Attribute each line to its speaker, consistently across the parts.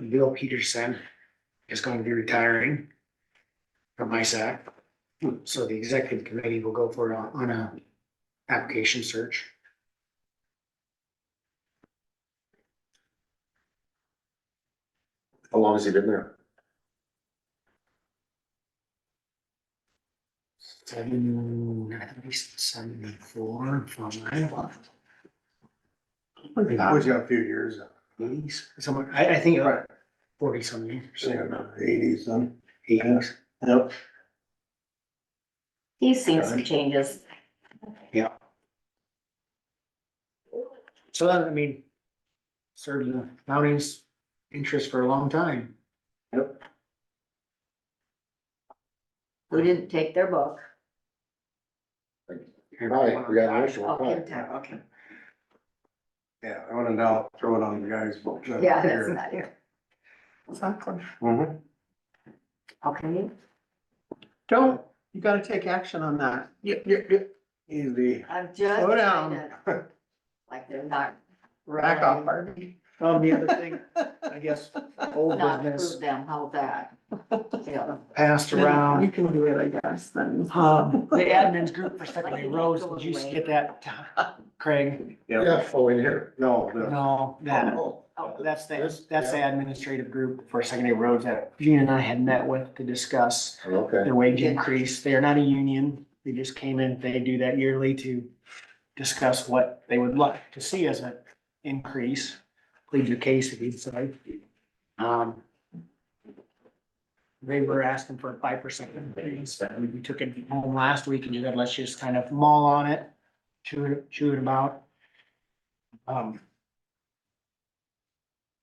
Speaker 1: Bill Peterson is going to be retiring from ISAC. So the executive committee will go for, a- on a application search.
Speaker 2: How long has he been there?
Speaker 1: Seven, at least seventy-four, five.
Speaker 3: Uh,
Speaker 4: Always got a few years,
Speaker 1: Eighties, somewhere, I, I think
Speaker 4: Right.
Speaker 1: forty some years,
Speaker 4: say in the eighties then.
Speaker 1: eighties.
Speaker 4: Yep.
Speaker 3: He's seen some changes.
Speaker 1: So that, I mean, served the county's interest for a long time.
Speaker 3: We didn't take their book.
Speaker 2: Hi, we got an extra
Speaker 3: Oh,
Speaker 2: one. Hi.
Speaker 3: Kentucky, okay.
Speaker 4: Yeah, I went out, throw it on the guy's books. That's
Speaker 3: Yeah, that's
Speaker 4: here.
Speaker 3: not here. Exactly.
Speaker 4: Mhm.
Speaker 3: Okay,
Speaker 5: Don't, you gotta take action on that.
Speaker 4: Yep, yep, yep. Easy.
Speaker 3: I'm just.
Speaker 5: Slow down.
Speaker 3: trying to- Like they're not,
Speaker 5: Rack off, Harvey.
Speaker 1: Um, the other thing, I guess, old
Speaker 3: not
Speaker 1: business
Speaker 3: prove them, how that. Yeah.
Speaker 1: passed
Speaker 5: You
Speaker 1: around.
Speaker 5: can do it, I guess, then.
Speaker 1: Um, the admins group for Secondary Roads, did you get that, Craig?
Speaker 4: Yeah,
Speaker 2: Yeah, oh, in here.
Speaker 4: no, the-
Speaker 1: No, that,
Speaker 4: oh,
Speaker 3: Oh,
Speaker 1: that's the, that's the administrative group for Secondary Roads that Gina and I had met with to discuss.
Speaker 2: Okay.
Speaker 1: their wage increase. They are not a union. They just came in. They do that yearly to discuss what they would like to see as an increase. Plead your case if you decide. Um, they were asking for a five percent increase. We took it home last week and you said, let's just kind of mull on it, chew it, chew it about. Um,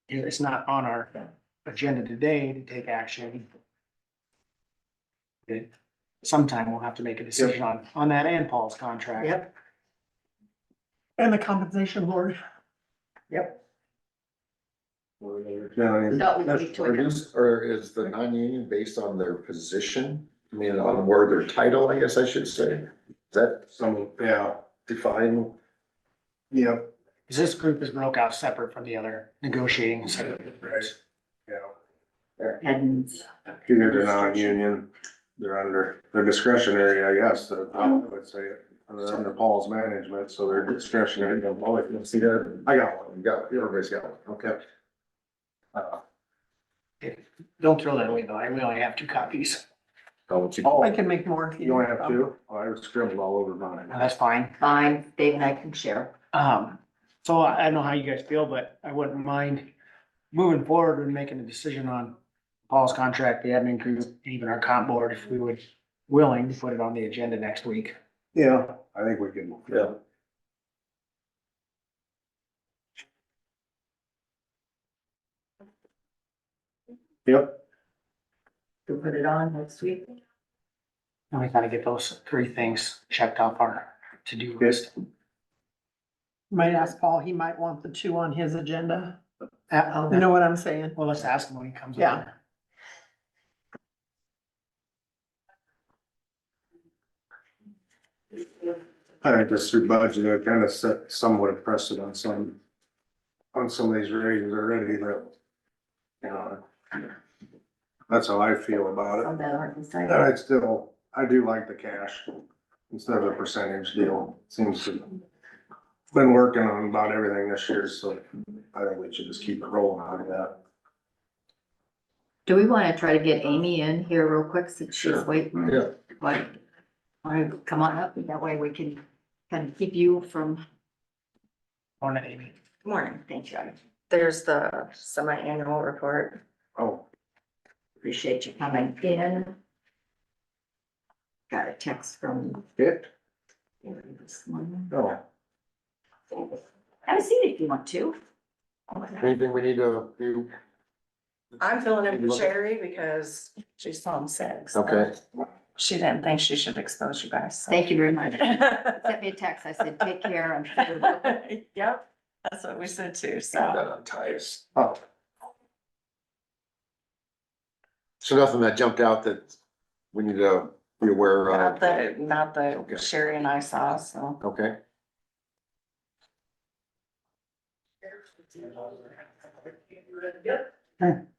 Speaker 1: it- it's not on our agenda today to take action. It- Sometime we'll have to make a decision on, on that and Paul's contract.
Speaker 5: Yep. And the compensation board.
Speaker 4: no, yeah.
Speaker 3: That would be
Speaker 4: That's-
Speaker 3: between them.
Speaker 2: Reduce, or is the non-union based on their position? I mean, on where their title, I guess I should say. Is that
Speaker 4: Some, yeah,
Speaker 2: defined?
Speaker 4: yep,
Speaker 1: Cause this group is broke out separate from the other negotiating. so-
Speaker 4: right, yeah.
Speaker 3: And
Speaker 4: Either they're non-union, they're under, they're discretionary, I guess, uh, I would say, they're under Paul's management, so they're discretionary.
Speaker 2: Oh, I can see that.
Speaker 4: I got one.
Speaker 2: You got, everybody's got one, okay.
Speaker 4: Uh,
Speaker 1: Don't throw that away though. I really have two copies.
Speaker 2: How would you?
Speaker 5: I
Speaker 4: Oh,
Speaker 5: can make more. if
Speaker 4: you only have
Speaker 5: um,
Speaker 4: two? Oh, I scribbled all over mine.
Speaker 1: No, that's fine.
Speaker 3: fine, Dave and I can share.
Speaker 1: Um, so I I don't know how you guys feel, but I wouldn't mind moving forward and making a decision on Paul's contract, the admin group, even our comp board, if we would willing to put it on the agenda next week.
Speaker 4: Yeah, I think we can.
Speaker 2: Yeah.
Speaker 4: Yep,
Speaker 3: We'll put it on next week.
Speaker 1: And we gotta get those three things checked off our to-do list.
Speaker 5: Might ask Paul, he might want the two on his agenda. You Uh, know what I'm saying?
Speaker 1: Well, let's ask him when he comes.
Speaker 5: Yeah.
Speaker 1: over.
Speaker 4: I think this through budget, I kind of set somewhat a precedent on, on some of these raises already, but, you know, that's how I feel about it.
Speaker 3: Some that aren't decided.
Speaker 4: And I still, I do like the cash instead of a percentage deal. Seems to, been working on about everything this year, so I think we should just keep it rolling out of that.
Speaker 3: Do we wanna try to get Amy in here real quick since she's
Speaker 2: Sure.
Speaker 3: waiting?
Speaker 2: Yeah.
Speaker 3: What? Wanna come on up, that way we can kind of keep you from
Speaker 1: Morning, Amy.
Speaker 6: Morning.
Speaker 3: Thank you. I
Speaker 6: There's the semi-annual report.
Speaker 4: Oh,
Speaker 3: appreciate you coming in. Got a text from
Speaker 4: it?
Speaker 3: Gary this morning.
Speaker 4: No.
Speaker 3: Have a seat if you want to.
Speaker 2: Anything we need to do?
Speaker 6: I'm filling in for Sherry because she's home sick. so
Speaker 2: Okay.
Speaker 6: She didn't think she should expose you guys. so.
Speaker 3: Thank you very much. Sent me a text. I said, take care. I'm sure.
Speaker 6: Yep, that's what we said too, so.
Speaker 2: That unties.
Speaker 4: Oh,
Speaker 2: So nothing that jumped out that we need to be aware
Speaker 6: Not
Speaker 2: of?
Speaker 6: that, not
Speaker 2: Okay.
Speaker 6: that Sherry and I saw, so.
Speaker 2: Okay.